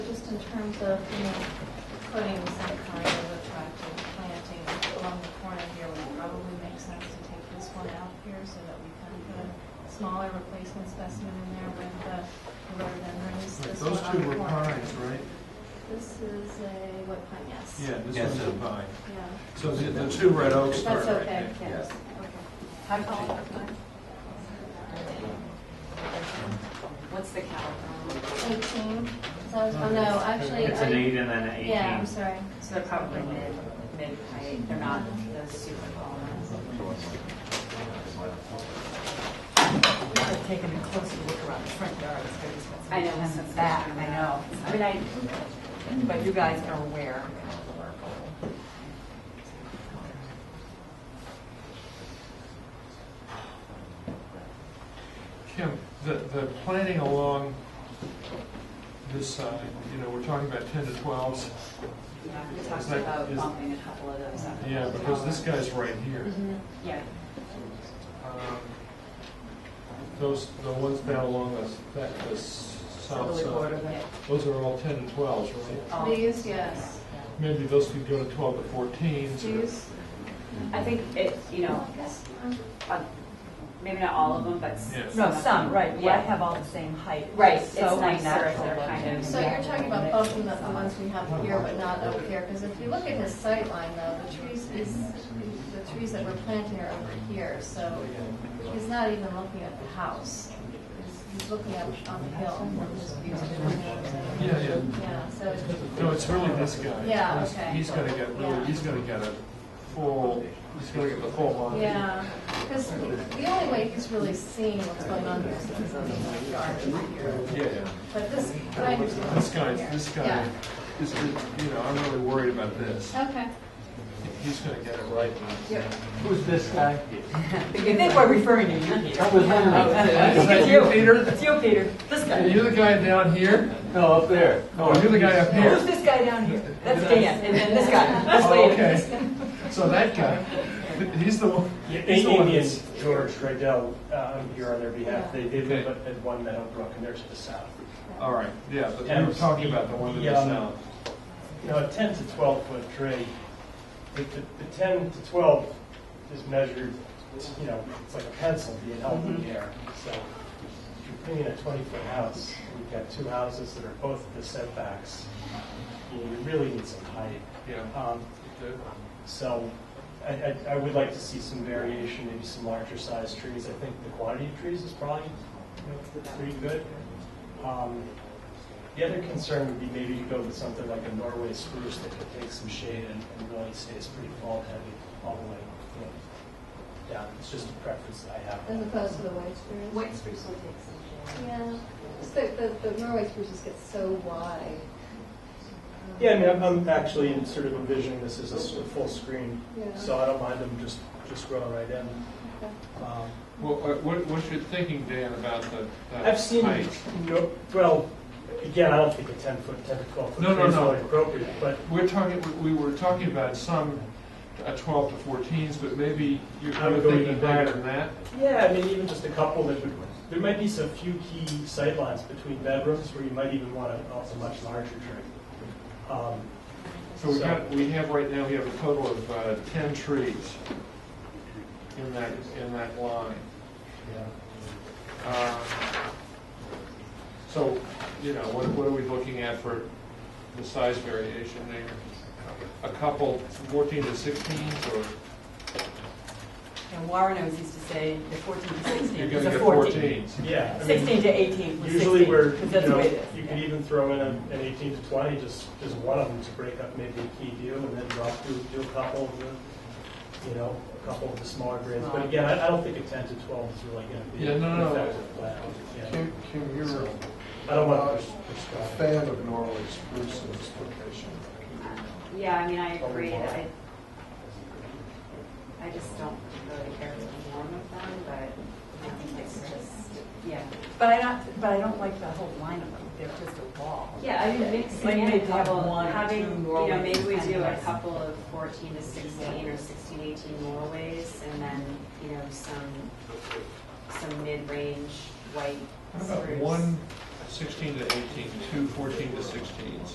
terms of, you know, putting some kind of attractive planting along the corner here would probably make sense to take this one out here so that we can put a smaller replacement specimen in there with the rhododendrons. Right, This Those one on two the were corner. pines, right? This is a wood pine, yes. Yeah, Yes, this one's a sir. pine. Yeah. So the the two red oaks are That's right okay, there. yes. How tall are mine? What's the caliper? Okay. Eighteen, so, I was- oh no, actually. It's an I- eight and then an Yeah, I'm eighteen. sorry. So they're probably mid, mid height, they're not those super tall ones. We could have taken a closer look around the front yard, it's very expensive. I know, And it's the back, expensive. I know. I mean, I, But you guys are aware. Kim, the, the planting along this side, you know, we're talking about ten to twelves. you know, we Is talked that- about is- bumping a couple of those up. Yeah, because this guy's right here. Yeah. Mm-hmm. Um, Those, the ones down along the, that, the s- south Southerly border side, there. those are all ten to twelves, right? Oh. These, yes. Maybe those could go to twelve to fourteens. or- These, I think it, you know, uh, maybe not all of them, but. s- Yes. No, of some, them. right, well, I Yeah. have all the same height. Right, It's it's so nicer if they're unnatural kind of- looking. So you're talking about both of the, the ones we have here, but not up here, because if you look at his sight line though, the trees, is the trees that we're planting are over here, so he's not even looking at the house. He's- He's looking up on the hill, from his view to the neighbors. Yeah, yeah. Yeah, so, it- No, it's really this guy. Yeah, He's- okay. He's gonna get Yeah. really, he's gonna get a full, he's gonna get the full monty. yeah, because the only way he's really seeing what's going on here is if he's on the yard over here. Yeah, yeah. But this, but I understand. This guy, Yeah. this guy, Yeah. is, you know, I'm really worried about this. Okay. He's gonna get it right. Who's this guy? You think we're referring to you, Peter. That was It's him. you, Peter. It's you, Peter. This guy. You're the guy down here? No, up there. Oh, you're the guy up Who's here? this guy down here? That's Dan, and then this guy, this Oh, lady. okay. So that guy, he's the one. he's Eight the one Amy that's- and George Riddell, uh, I'm here on their behalf. They they live Okay. at at One Meadow Brook, and there's the south. All right, yeah, but we And were talking about the one that the, is um, now. You know, a 10 to 12 foot tree, the the- the 10 to 12 is measured, you know, it's like a pencil being held Mm-hmm. in the air. So if you're putting in a 20 foot house, and you've got two houses that are both at the setbacks, you know, you really need some height. Yeah. Um, So I, I, I would like to see some variation, maybe some larger sized trees. I think the quantity of trees is probably, you know, pretty good. Um, The other concern would be maybe to go with something like a Norway spruce that could take some shade and and really stays pretty fall heavy all the way, you know, down. It's just a preference that I have. As opposed to the white spruce? White spruce will take some shade. Yeah, Just the, the, the Norway spruces get so wide. Yeah, I mean, I'm, I'm actually in sort of envisioning this as a s- a full screen, Yeah. so I don't mind them just, just growing right in. Um, Well, uh, what, what's your thinking, Dan, about the? that I've seen, height? no, well, again, I don't think a ten foot, ten to twelve foot No, no, tree is no. really appropriate, but We're talking, we we were talking about some uh, 12 to 14s, but maybe you're I would you're go thinking even bigger higher. than that? yeah, I mean, even just a couple that would, there might be some few key sightlines between bedrooms where you might even want a, a much larger tree. Um, So we So- got, we have right now, we have a total of uh, 10 trees in that, in that line. Uh, So, you know, what, what are we looking at for the size variation there? A couple 14 to 16s or? And Warren always used to say the 14 to 16 You're is gonna a get 14. 14s. Yeah. I mean, 16 to 18 was 16. Usually we're, because you that's the way know, it is. you could even throw in a- an eighteen to twenty, just, just one of them to break up maybe a key view and then drop through, do a couple of the, you know, a couple of the smaller grades. But again, I, I don't think a ten to twelve is really gonna be Yeah, an no, no. effective plan. Yeah. Kim, Kim, you're So, a I don't want to fan of Norway spruce in this location. Yeah, I mean, I agree, I, I just don't really care for warm of them, but I think it's just, yeah. But I don't, but I don't like the whole line of them, they're just a wall. Yeah, I mean, mixing Like in a maybe have couple, one or having, two you know, Norways maybe we and do a rice. couple of fourteen to sixteen or sixteen, eighteen Norways, and then, you know, some, some mid-range white How spruce. about one 16 to 18, two 14 to 16s?